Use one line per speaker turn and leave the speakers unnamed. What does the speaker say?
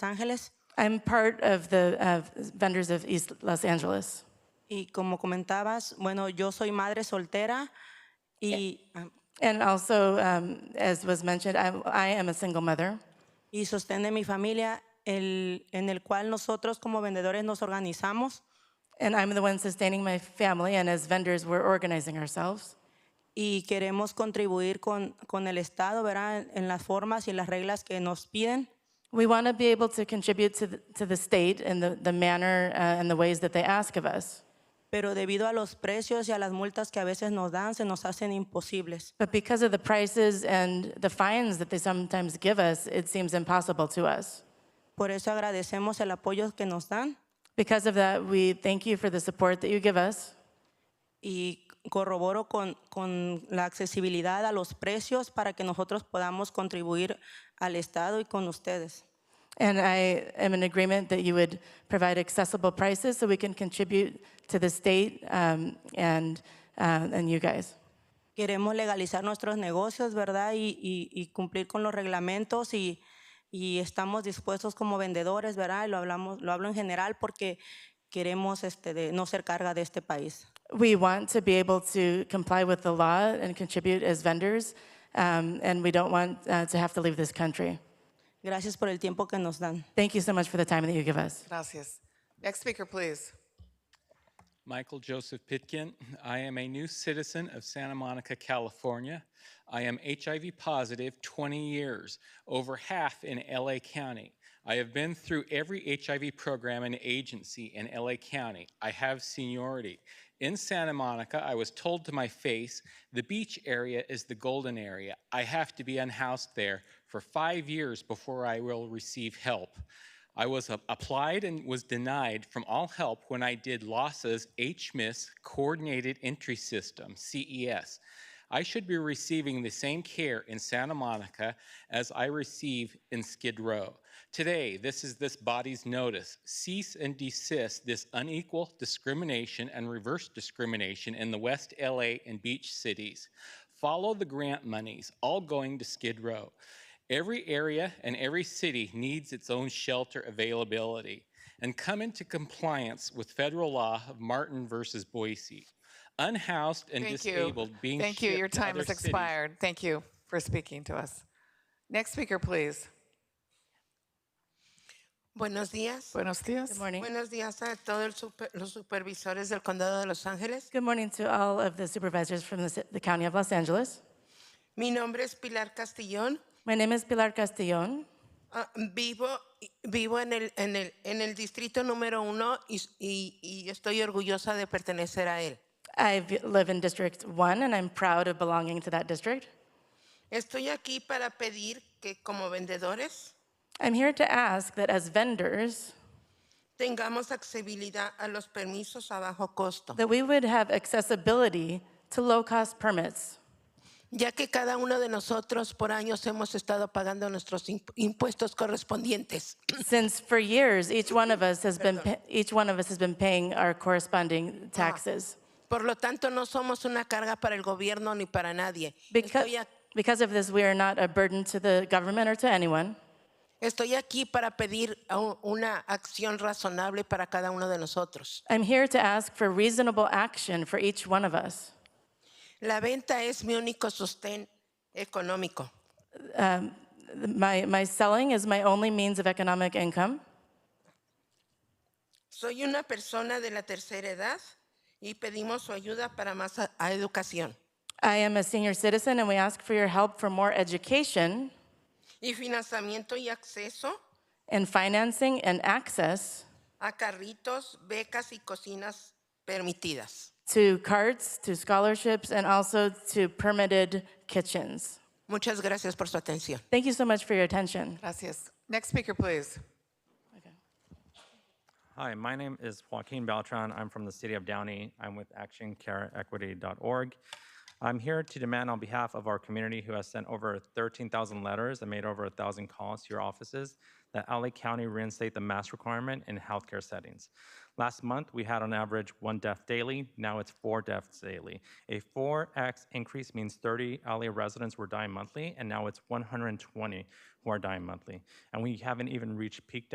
Ángeles.
I'm part of the uh, vendors of East Los Angeles.
Y como comentabas, bueno, yo soy madre soltera y, ah,
And also, um, as was mentioned, I, I am a single mother.
y sostén de mi familia, el, en el cual nosotros como vendedores nos organizamos
And I'm the one sustaining my family, and as vendors, we're organizing ourselves.
y queremos contribuir con, con el Estado, ¿verdad? En, en las formas y las reglas que nos piden.
We want to be able to contribute to the, to the state in the, the manner uh, and the ways that they ask of us.
Pero debido a los precios y a las multas que a veces nos dan, se nos hacen imposibles.
But because of the prices and the fines that they sometimes give us, it seems impossible to us.
Por eso agradecemos el apoyo que nos dan
Because of that, we thank you for the support that you give us.
y corroboro con, con la accesibilidad a los precios para que nosotros podamos contribuir al Estado y con ustedes.
And I am in agreement that you would provide accessible prices so we can contribute to the state um, and, uh, and you guys.
Queremos legalizar nuestros negocios, ¿verdad? Y, y- y cumplir con los reglamentos y, y estamos dispuestos como vendedores, ¿verdad? Y lo, hablamos, lo hablo en general porque queremos este, de no ser carga de este país.
We want to be able to comply with the law and contribute as vendors, um, and we don't want uh, to have to leave this country.
Gracias por el tiempo que nos dan.
Thank you so much for the time that you give us.
Gracias. Next speaker, please.
Michael Joseph Pitkin. I am a new citizen of Santa Monica, California. I am HIV positive 20 years, over half in LA County. I have been through every HIV program and agency in LA County. I have seniority. In Santa Monica, I was told to my face, the beach area is the golden area. I have to be unhoused there for five years before I will receive help. I was a- applied and was denied from all help when I did LASA's HMIS Coordinated Entry System, E CES. I should be receiving the same care in Santa Monica as I receive in Skid Row. Today, this is this body's notice. Cease and desist this unequal discrimination and reverse discrimination in the West LA and beach cities. Follow the grant monies, all going to Skid Row. Every area and every city needs its own shelter availability and come into compliance with federal law of Martin versus Boise. Unhoused and
Thank you.
disabled being
Thank you. Your
shipped to
time
other
has
cities-
expired. Thank you for speaking to us. Next speaker, please.
Buenos días.
Buenos dias.
Good morning.
Buenos días a todos el super- los supervisores del Condado de Los Ángeles.
Good morning to all of the supervisors from the, ci- the County of Los Angeles.
Mi nombre es Pilar Castillón.
My name is Pilar Castillon.
Ah, vivo vivo en, el, en, el, en el distrito número uno y, y- y estoy orgullosa de pertenecer a él.
I v- live in District 1, and I'm proud of belonging to that district.
Estoy aquí para pedir que como vendedores
I'm here to ask that as vendors,
tengamos accesibilidad a los permisos a bajo costo,
that we would have accessibility to low-cost permits,
ya que cada uno de nosotros por años hemos estado pagando nuestros imp- impuestos correspondientes.
since for years each one of us has been pa- each one of us has been paying our corresponding taxes.
Por lo tanto, no somos una carga para el gobierno ni para nadie.
Because,
Estoy, a-
because of this, we are not a burden to the government or to anyone.
estoy aquí para pedir a u- una acción razonable para cada uno de nosotros.
I'm here to ask for reasonable action for each one of us.
La venta es mi único sostén económico.
My, my selling is my only means of economic income.
Soy una persona de la tercera edad y pedimos su ayuda para más a- a educación
I am a senior citizen, and we ask for your help for more education
y financiamiento y acceso
and financing and access
a carritos, becas y cocinas permitidas.
to carts, to scholarships, and also to permitted kitchens.
Muchas gracias por su atención.
Thank you so much for your attention.
Gracias. Next speaker, please.
Hi, my name is Joaquin Beltran. I'm from the city of Downey. I'm with actioncareequity.org. I'm here to demand on behalf of our community who has sent over 13,000 letters and made over 1,000 calls to your offices that LA County reinstate the mask requirement in healthcare settings. Last month, we had on average one death daily. Now it's four deaths daily. A 4x increase means 30 LA residents were dying monthly, and now it's 120 who are dying monthly. And we haven't even reached peak